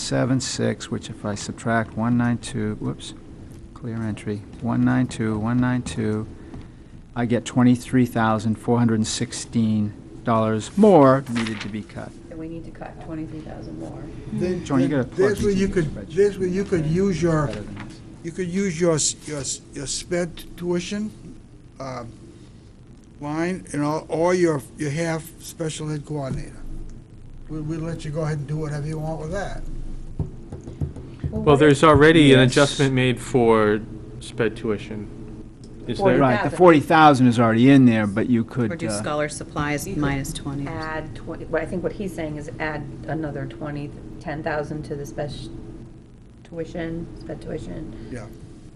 776, which if I subtract 192, whoops, clear entry, 192, 192, I get $23,416 more needed to be cut. So we need to cut twenty-three thousand more. Then- John, you then gotta plug There's these where you into your could, spreadsheet. there's where you could use your, Better than this. you could use your, s- your, s- your spent tuition um, line and all, or your, your half special ed coordinator. We, we let you go ahead and do whatever you want with that. Well, there's already an Yes. adjustment made for sped tuition. Is Or- there? Right, the 40,000 is already in there, but you could. Reduce uh, scholar supplies You could minus 20. Add twenty, what I think what he's saying is add another twenty, ten thousand to the special tuition, sped tuition. Yeah.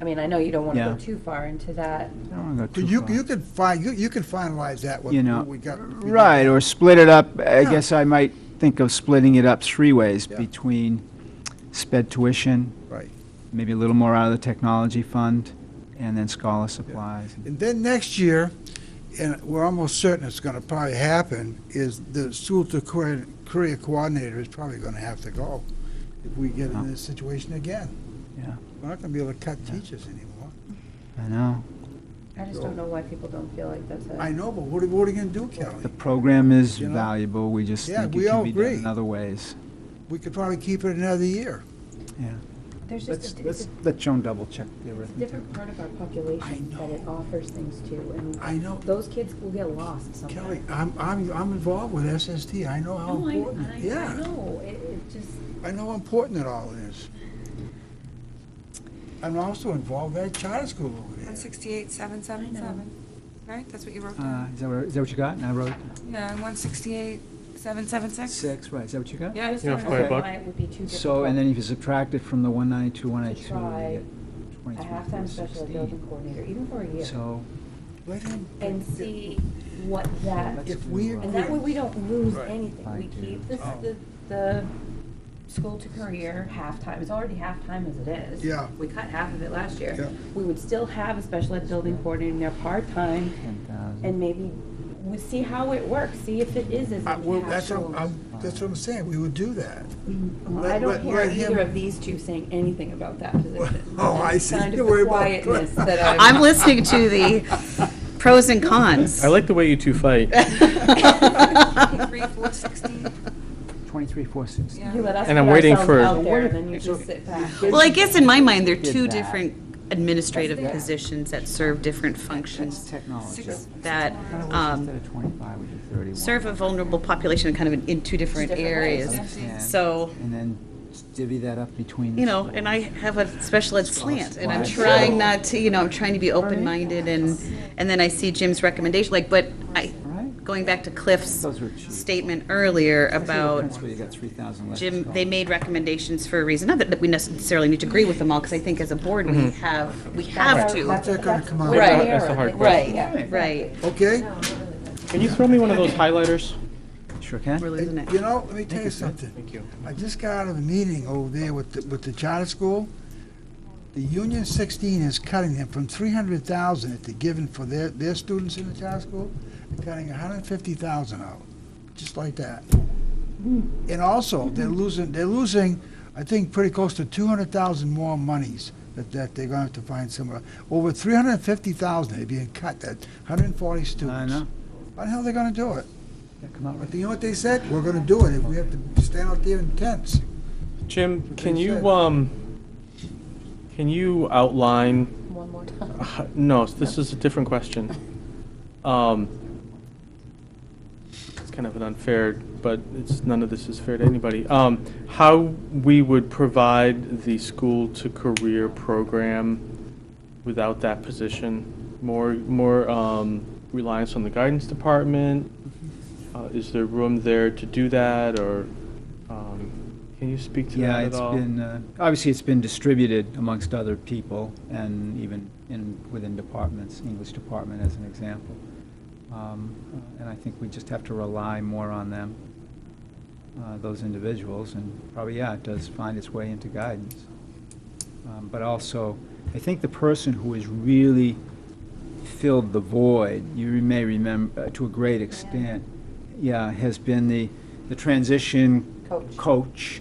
I mean, I know you don't want to Yeah. go too far into I that. don't wanna go But too you, far. you could find, you, you could finalize that, what You know, what we got. Right, or split it up, I Yeah. guess I might think of splitting it up three ways, Yeah. between sped tuition, Right. maybe a little more out of the technology fund, and then scholar supplies. And then next year, and we're almost certain it's gonna probably happen, is the school to career, career coordinator is probably gonna have to go if we get in this situation again. Yeah. We're not gonna be able to cut teachers anymore. I know. I just don't know why people don't feel like that's I a, know, but what are, what are you gonna do, Kelly? The program is You know? valuable, we just Yeah, think we it all can be done agree. in other ways. We could probably keep it another year. there's Let's, just, a- it's let's, let Joan double check the a arithmetic. different part of our I population that know. it offers things to, and I know, those kids will get lost somewhere. Kelly, I'm, I'm, I'm involved with SST, I know how No, I, important, I, I yeah, know, it, it just, I know how important it all is. I'm also involved at charter school over there. One sixty-eight, seven, seven, seven, right? That's what you wrote Uh, down? is that what, is that what you got? And I wrote Yeah, one sixty-eight, seven, seven, six? six, right, is that what you got? Yeah, I just Yeah, don't five know Okay. bucks. why it would be too difficult. So, and then if you subtract it from the one ninety-two, one To eighty-two, try you get A twenty-three, half-time special ed building coordinator, even for a year, So, Let him- and see what that, let's If do, we uh, and that way we don't lose Right. anything. We Fine, too. keep this, Oh. the, the school to career halftime, it's already halftime as it is. Yeah. We cut half of it last Yeah. year. We would still have a special ed building coordinator in there part-time, 10,000. and maybe, we see how it works, see if it is as I- Uh, Well, that's impactful. what, I'm, that's what I'm saying, we would do that. Well, I Let- don't let- hear let him- either of these two saying anything about that position. Oh, I see. Kind of Don't worry the about it. quietness that I'm. I'm listening to the pros and cons. I like the way you two fight. Three, four, sixteen, Twenty-three, four sixty. yeah. You let us And I'm put waiting ourselves for- out there, and then you just sit back. Well, I guess in my mind, they're Did two that. different administrative positions that serve different functions technology. Six- that Kinda wish um, instead of twenty-five, we did thirty-one. serve a vulnerable population kind of in- in two different Different areas. ways, yeah. So, And then divvy that up between. the you know, schools. and I have a special ed slant, and I'm Right. trying not to, you know, I'm trying to be open-minded, and, and then I see Jim's recommendation, like, but I, Right? going back to Cliff's Those were cheap. statement earlier about That's where you got three thousand less. Jim, they made recommendations for a reason, not that that we necessarily need to agree with them all, because I think as a board, we have, we have That's to. not gonna come out. Right. That's the hard Right, right. Okay? Can you throw me one of those highlighters? Sure can. We're losing it. You know, let me tell you something. Thank you. I just got out of a meeting over there with, the- with the charter school. The Union sixteen is cutting them from three hundred thousand that they're giving for their, their students in the charter school, they're cutting hundred and fifty thousand out, just like that. And also, they're losing, they're losing, I think, pretty close to two hundred thousand more monies that, that they're gonna have to find somewhere. Over three hundred and fifty thousand, they're being cut, that hundred and forty students. I know. How the hell are they gonna do it? Yeah, Come out But with you know what they said? We're gonna do it if we have to stand out there in tents. Jim, can they said. you, um, can you outline, One more time. uh, no, this is a different question. Um, It's kind of an unfair, but it's, none of this is fair to anybody. Um, How we would provide the school to career program without that position? More, more um, reliance on the guidance department? Uh, Is there room there to do that, or um, can you speak to Yeah, that at it's all? been, uh, obviously, it's been distributed amongst other people and even in, within departments, English department as an example. Um, uh, And I think we just have to rely more on them, uh, those individuals, and probably, yeah, it does find its way into guidance. Um, But also, I think the person who has really filled the void, you may remember, uh, to a great extent, yeah, has been the, the transition Coach. coach